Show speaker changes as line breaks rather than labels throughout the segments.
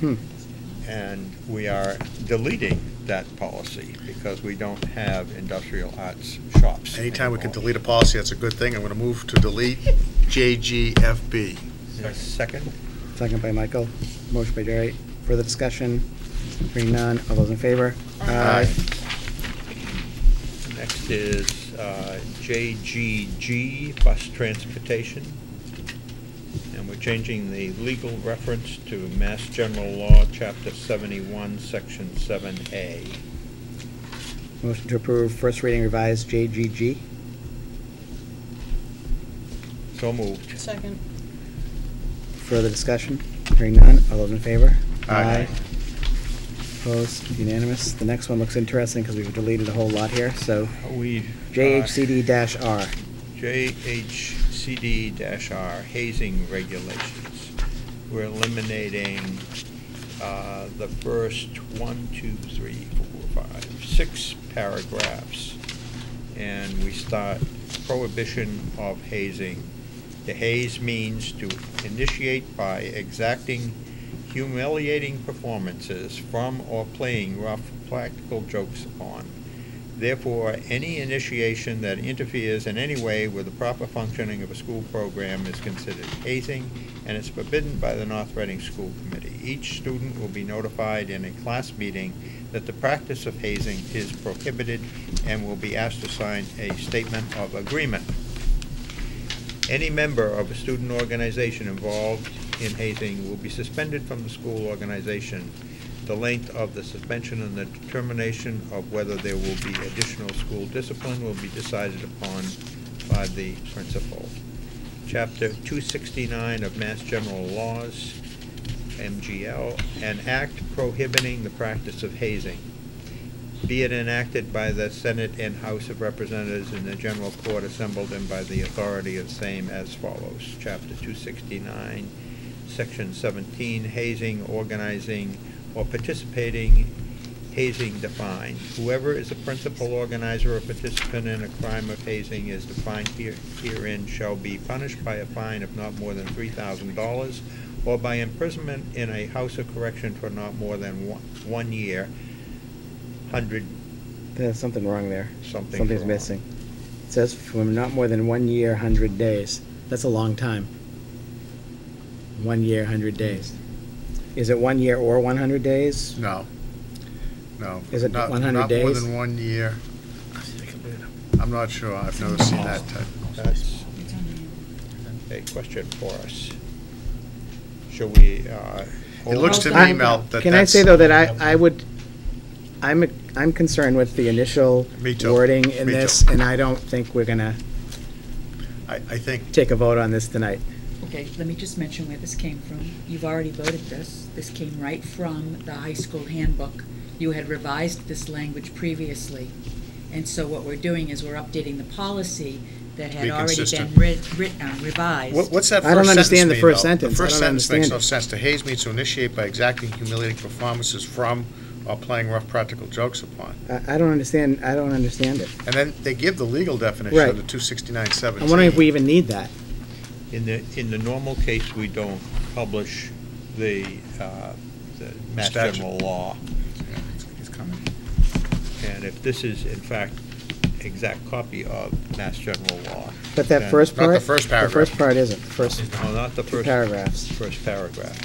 Hmm.
And we are deleting that policy because we don't have industrial arts shops.
Anytime we can
anymore.
delete a policy, that's a good thing. I'm going to move to delete JGFB.
Is there a Second,
Second by Michael. Motion by Jerry. Further discussion? Hearing none. All those in favor?
Aye.
next is uh, JGG, bus transportation. And we're changing the legal reference to Mass General Law, Chapter 71, Section 7A.
Motion to approve first reading revised JGG.
So moved.
Second.
Further discussion? Hearing none. All those in favor?
Aye.
Opposed? Unanimous. The next one looks interesting because we've deleted a whole lot here, so
We. uh,
JHCD-R.
JHCD-R hazing regulations. We're eliminating uh, the first one, two, three, four, five, six paragraphs, and we start prohibition of hazing. The haze means to initiate by exacting humiliating performances from or playing rough practical jokes upon. Therefore, any initiation that interferes in any way with the proper functioning of a school program is considered hazing and is forbidden by the North Reading School Committee. Each student will be notified in a class meeting that the practice of hazing is prohibited and will be asked to sign a statement of agreement. Any member of a student organization involved in hazing will be suspended from the school organization the length of the suspension and the determination of whether there will be additional school discipline will be decided upon by the principal. Chapter 269 of Mass General Laws, MGL, an act prohibiting the practice of hazing. Be it enacted by the Senate and House of Representatives and the General Court assembled and by the authority of same as follows. Chapter 269, Section 17, hazing, organizing, or participating hazing defined. Whoever is a principal organizer or participant in a crime of hazing is defined here- herein shall be punished by a fine of not more than three thousand dollars or by imprisonment in a house of correction for not more than one, one year, hundred
There's something wrong there.
Something's
Something's
wrong.
missing. It says from not more than one year, 100 days. That's a long time. One year, 100 days. Is it one year or 100 days?
No. No.
Is it
Not-
100
Not more
days?
than one year. I'm not sure. I've never seen that type.
That's
It's on the-
a question for us. Shall we, uh?
It looks to me,
I'm-
Mel, that that's.
Can I say, though, that I, I would, I'm, I'm concerned with the initial
Me too.
wording in
Me too.
this, and I don't think we're gonna
I, I think,
take a vote on this tonight.
Okay, let me just mention where this came from. You've already voted this. This came right from the high school handbook. You had revised this language previously. And so what we're doing is we're updating the policy that had
Be
already been
consistent.
writ- writ- uh, revised.
what- what's that
I don't
first sentence
understand the
mean,
first
though?
sentence. I
The first
don't
sentence makes
understand
no
it.
sense. To haze means to initiate by exacting humiliating performances from or playing rough practical jokes upon.
I, I don't understand, I don't understand it.
And then they give the legal definition
Right.
of the two sixty-nine
I'm
seventeen.
wondering if we even need that.
In the, in the normal case, we don't publish the, uh, the Mass
Statute.
General law. And if this is in fact exact copy of Mass General law.
But that
then-
first
Not
part.
the first paragraph.
The first part isn't, the first,
No, not the
Two
first.
paragraphs.
First paragraph.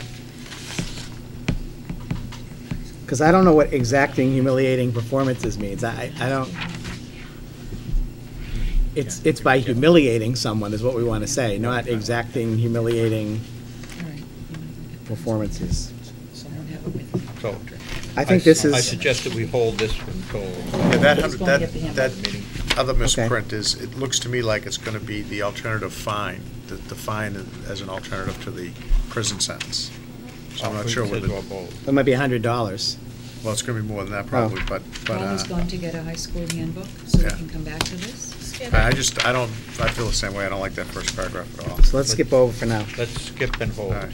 because I don't know what exacting humiliating performances means. I, I don't. It's, it's by humiliating someone is what we want to say, not exacting humiliating
All right.
performances.
Someone have it with me.
So
I think
I-
this
I
is,
suggest that we hold this until
Yeah, that,
Who's
hundred-
gonna
that,
get the handbook?
that
meeting.
other misprint is, it looks to me like it's gonna be the alternative fine, the, the fine as an alternative to the prison sentence. So I'm not sure whether,
Says
well,
or both.
it might be a hundred dollars.
it's gonna be more than that probably,
Oh.
but, but,
Paul is
uh,
going to get a high school handbook, so we
Yeah.
can come back to this.
I I just, I don't, I feel the same way, I don't like that first paragraph at all.
So let's skip over for now
Let's skip and
All
hold.
right.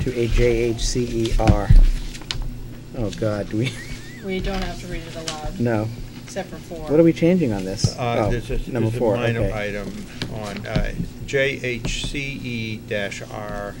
to a J H C E R. Oh, God, do we,
We don't have to read it aloud,
no.
except for four.
What are we changing on this?
Uh,
Oh,
There's a
Number
there's a
four,
minor
okay.
E item on JHCE-R